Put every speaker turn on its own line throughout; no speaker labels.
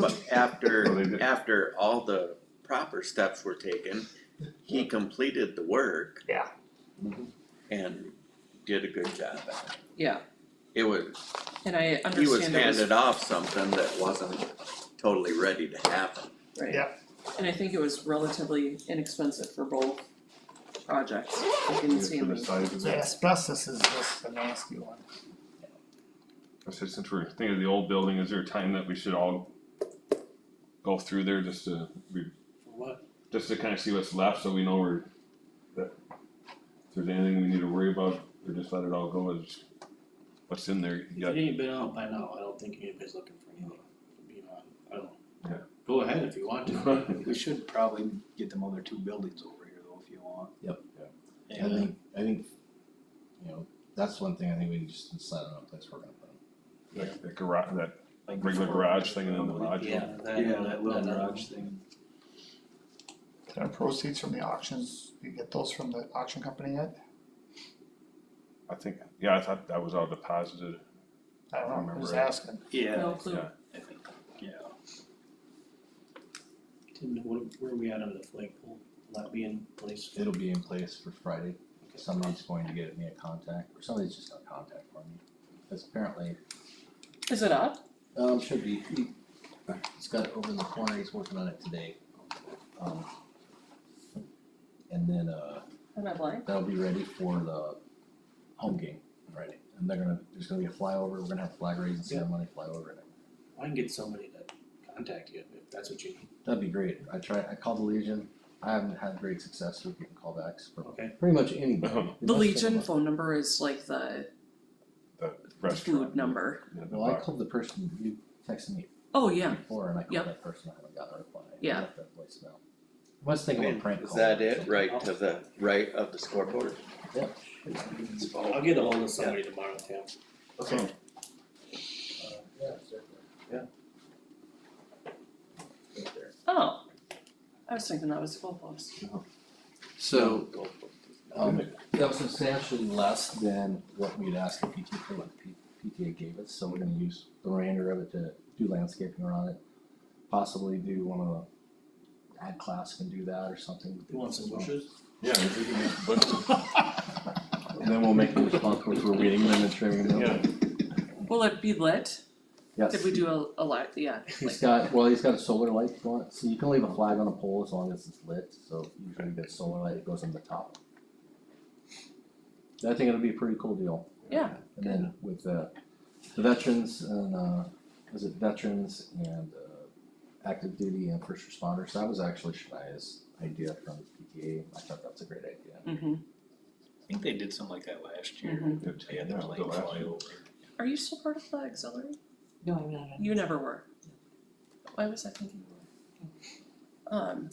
But
Oh, they did.
after, after all the proper steps were taken, he completed the work.
Yeah.
Mhm.
And did a good job at it.
Yeah,
It was,
and I
he was
understand it was,
handed off something that wasn't totally ready to happen.
right.
Yeah.
And I think it was relatively inexpensive for both projects, I didn't see
For the
any,
size of
The
it,
asbestos is just a nasty one.
I said, since we're thinking of the old building, is there a time that we should all go through there just to, re-
What?
just to kind of see what's left, so we know we're, that if there's anything we need to worry about, or just let it all go as what's in there, you
If
got
it ain't been out by now, I don't think anybody's looking for anything, you know, I don't.
Yeah.
Go ahead if you want to.
We should probably get them other two buildings over here though, if you want.
I
And
think, I think, you know, that's one thing I think we can just decide on a place we're gonna put them.
that, that garage, that
Like
regular
before-
garage thing and then the lodge.
yeah, that,
Yeah,
that,
that little
that, uh,
garage thing.
Our proceeds from the auctions, you get those from the auction company yet?
I think, yeah, I thought that was all deposited,
I don't know,
Remember
who's
it.
asking?
Yeah,
no clue.
yeah.
yeah.
Tim, what, where are we at under the flagpole? Will that be in place?
It'll be in place for Friday, somebody's going to get me a contact, or somebody's just gonna contact for me. Because apparently,
Is it up?
um, should be, he, he's got it over in the corner, he's working on it today. Um, And then, uh,
Am I blind?
that'll be ready for the home game, Friday. And they're gonna, there's gonna be a flyover, we're gonna have flag raising ceremony, flyover and
I can get somebody to contact you if that's what you need,
That'd be great. I tried, I called the Legion. I haven't had great success with getting callbacks for
okay?
pretty much anybody.
The Legion phone number is like the
the
the
restaurant.
food number.
yeah, the
Well, I
box.
called the person you texted me
Oh, yeah,
before and I
Yep.
called that person, I haven't gotten a reply. I
Yeah.
left that voicemail. I was thinking of a prank call.
Is that it, right to the right of the scoreboard?
Yeah.
I'll get ahold of somebody tomorrow, Tim.
Okay.
Uh,
oh, I was thinking that was the goalpost.
So,
Go for it.
um, that was substantially less than what we'd asked the PTA for, what the P- PTA gave us, so we're gonna use the remainder of it to do landscaping around it. Possibly do one of the ad class can do that or something.
You want some bushes?
Yeah, if we can make the budget,
And then we'll make them responsible for weeding them and trimming them.
yeah,
Will it be lit?
Yes.
Did we do a a light, yeah,
He's got, well, he's got a solar light going, so you can leave a flag on a pole as long as it's lit, so usually you get solar light, it goes on the top. I think it'll be a pretty cool deal.
Yeah,
And then with the, the veterans and, uh, was it veterans and, uh, active duty and first responders, that was actually Shania's idea from PTA, I thought that's a great idea.
mm-hmm,
I think they did something like that last year.
mm-hmm.
They had the
Yeah,
plane
the last
fly
year.
over.
Are you still part of the auxiliary?
No, I'm not.
You never were. Why was I thinking you were? Um,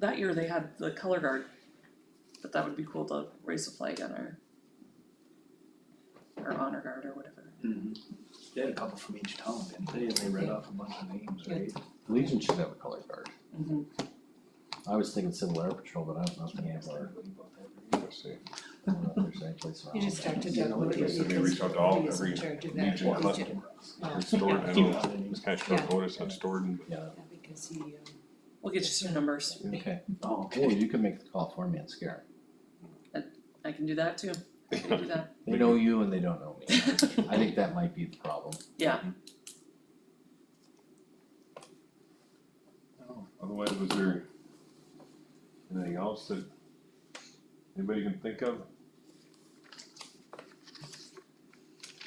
that year they had the color guard, but that would be cool to raise a flag on our our honor guard or whatever.
They had a couple from each town, didn't they? And they read off a bunch of names, right?
Legion should have a color guard,
Mm-hmm.
I was thinking Civil Air Patrol, but I don't know if they have, or,
Everybody bought that.
let's see.
I don't know if there's any place around
You just
that.
talked to Doug Moody.
So we reach out to all,
He's in
every
charge of that
Legion customer,
region. Yeah.
it's stored, I
Keep
know,
on it.
it's kind of short notice on stored, but.
Yeah,
Yeah, Because he, um,
We'll get you some numbers.
okay,
Oh,
or
okay.
you can make the call for me and scare 'em.
I can do that too. I can do that.
They know you and they don't know me. I think that might be the problem.
Oh, Otherwise, was there anything else that anybody can think of?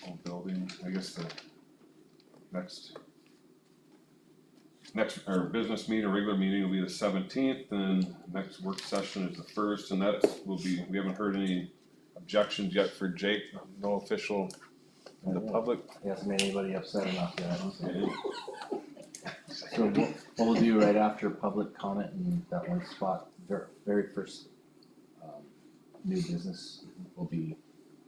Old building, I guess the next next, our business meeting, our regular meeting will be the seventeenth, and next work session is the first, and that will be, we haven't heard any objections yet for Jake, no official in the public.
He hasn't made anybody upset enough yet. So so what what we'll do right after public comment and that one spot, ver- very first um new business will be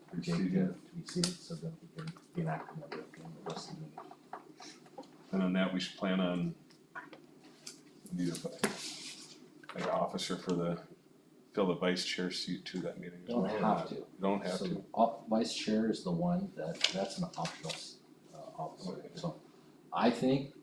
for Jake to to be seated, so that we can be an active member in the rest of the meeting.
And on that, we should plan on we need a like an officer for the, fill the vice chair seat to that meeting. as
Don't
well.
have to.
You Don't have
So
to.
op- vice chair is the one that, that's an optional s- uh officer, so I think